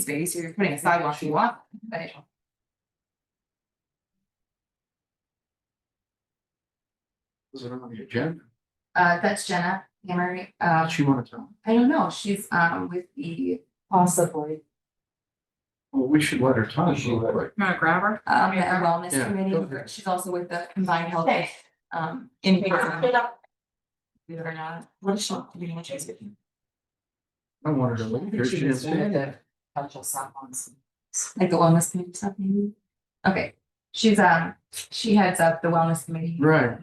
space, you're putting a sidewalk you want, but. Was it on the agenda? Uh, that's Jenna Hammer, uh, She wanted to. I don't know, she's um with the, Possibly. Well, we should let her talk. She let her. Not a grabber. um, the wellness Yeah, go committee, ahead. she's also with the combined health, um, in person. Believe it or not, what is she, do you want to chase it? I wanted to leave here. She didn't say. Like the wellness committee stuff maybe? Okay, she's um, she heads up the wellness committee. Right.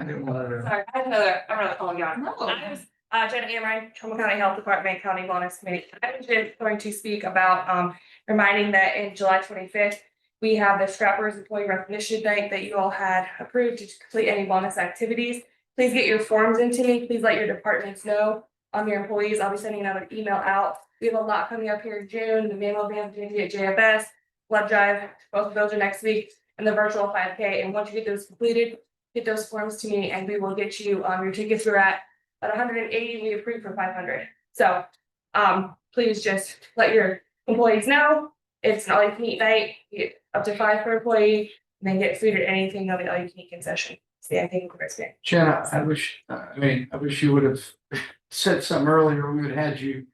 I didn't want her. Sorry, I have another, I'm really, oh my god. No. I was, uh, Jenna Amrine, Trumbull County Health Department, County Wellness Committee. I was just going to speak about, um, reminding that in July twenty-fifth, we have the Scrappers Employee Recognition Night that you all had approved to complete any wellness activities. Please get your forms into me. Please let your departments know, um, your employees. I'll be sending another email out. We have a lot coming up here in June, the manual van, J at JFS, blood drive, both of those are next week, and the virtual five K. And once you get those completed, get those forms to me and we will get you, um, your tickets were at at hundred and eighty, we approved for five hundred. So, um, please just let your employees know. It's an all you can eat night, you get up to five per employee, and then get food or anything on the all you can eat concession. See, I think Chris did. Jenna, I wish, I mean, I wish you would have said something earlier. We would have had you.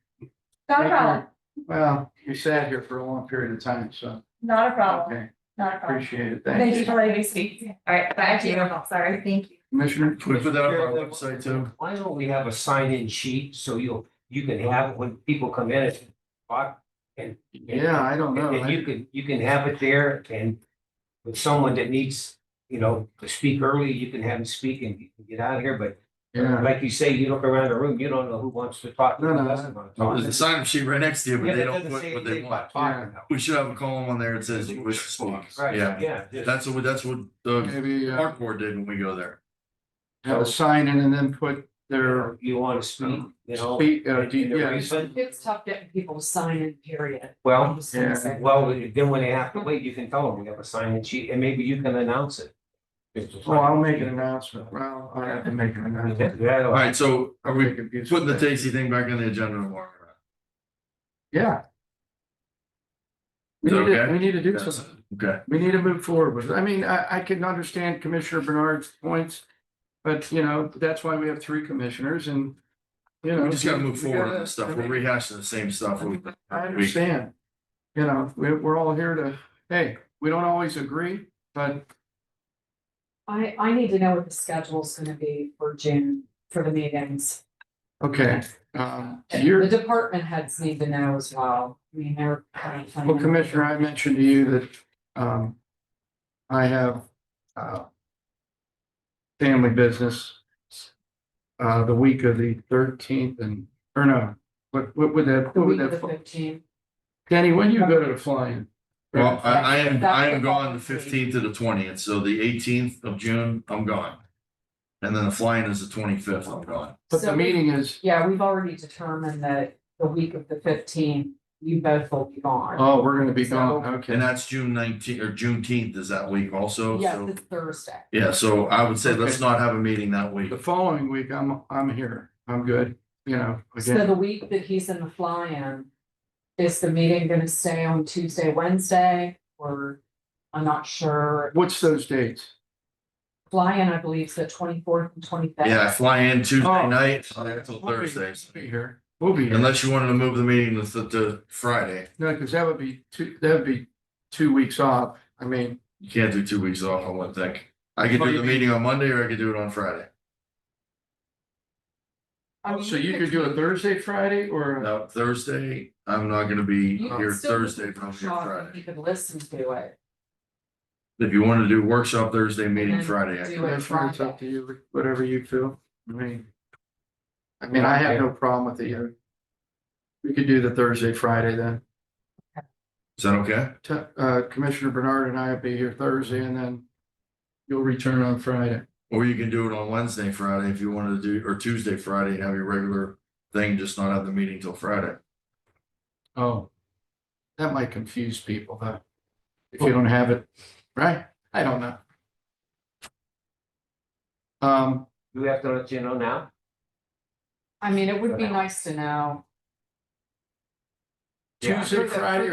Not a problem, Well, you sat here for a long period of time, so. not a problem, Okay, not a problem. appreciate it. Thank Thank you you. for letting me speak. All right, back to you, sorry. Thank you. Commissioner? We put that up on our website, too. Why don't we have a sign-in sheet so you'll, you can have, it when people come in, it's blocked and. Yeah, I don't And know. and you can, you can have it there and with someone that needs, you know, to speak early, you can have them speak and you can get out of here, but Yeah, like you say, you look around the room, you don't know who wants to talk. who No, no, doesn't wanna talk. Oh, There's a sign up sheet right next to you, Yeah, but that they don't doesn't put say what they anything want. about talking, We should have a column on there that says you wish to speak. though. Right, Yeah, yeah. just- that's what, that's what the maybe uh, park board did when we go there. have a sign in and then put their You want to speak, you know. speak, uh, and- and the yeah. reason- It's tough getting people to sign in, period. Well, Oh, yeah. Well, then when they have to wait, you can tell them we have a sign-in sheet and maybe you can announce it. Oh, I'll make an announcement. Well, I have to make an announcement. All That'll- right, so are we Putting putting the Tasty thing back on the agenda tomorrow? Yeah. We Is that need to, okay? we need to do Yes. something. Okay, We need to move forward with, it. I mean, I, I can understand Commissioner Bernard's points. But, you know, that's why we have three commissioners and, you know. we just gotta move we forward on gotta- this stuff. I We're mean, rehashing the same stuff. we- I understand. You know, we, we're all here to, hey, we don't always agree, but I, I need to know what the schedule's gonna be for June, for the meetings. okay, um, The you're, department heads need to know as well. I mean, they're. well, Commissioner, I mentioned to you that, um. I have, uh. Family business. Uh, the week of the thirteenth and, or no, what, what would that, The what would week of that? the fall- fifteenth. Danny, when you go to the flying? Well, I, I am, I That's the am gone the policy. fifteenth to the twentieth, so the eighteenth of June, I'm gone. And then the flying is the twenty-fifth, I'm gone. But the meeting is, Yeah, we've already determined that the week of the fifteenth, you both will be gone. oh, we're gonna be gone, And okay. that's June nineteenth or Juneteenth is that week also, Yes, so. it's Thursday. Yeah, so I would say let's Okay. not have a meeting that week. The following week, I'm, I'm here, I'm good, you know, So again, the week that he's in the fly-in, is the meeting gonna stay on Tuesday, Wednesday, or I'm not sure. what's those dates? Fly-in, I believe, is the twenty-fourth and twenty-fifth. Yeah, I fly in Tuesday Oh. night until Thursday, We'll Be here, we'll be here, unless you wanted to move the meeting to, th- to Friday. no, because that would be two, that would be two weeks off, I mean, You can't do two weeks off, I wouldn't think. I could What do do you the meeting on Monday or I could do it on Friday. so you could do a Thursday, Friday, or, Now, Thursday, I'm not gonna be You could here still do Thursday, but I'm here workshop, and Friday. You could listen to it. If you wanted to do workshop Thursday, meeting then Friday, I do could. it that's fine, it's Friday. up to you, whatever you feel, I mean. I mean, I have no problem with either. We could do the Thursday, Friday then. is that okay? Te- uh, Commissioner Bernard and I will be here Thursday and then you'll return on Friday. Or you can do it on Wednesday, Friday, if you wanted to do, or Tuesday, Friday, and have your regular thing, just not have the meeting till Friday. Oh. That might confuse people though. If you don't have it, right? I don't know. Um, Do we have to let you know now? I mean, it would be nice to know. Tuesday, Friday,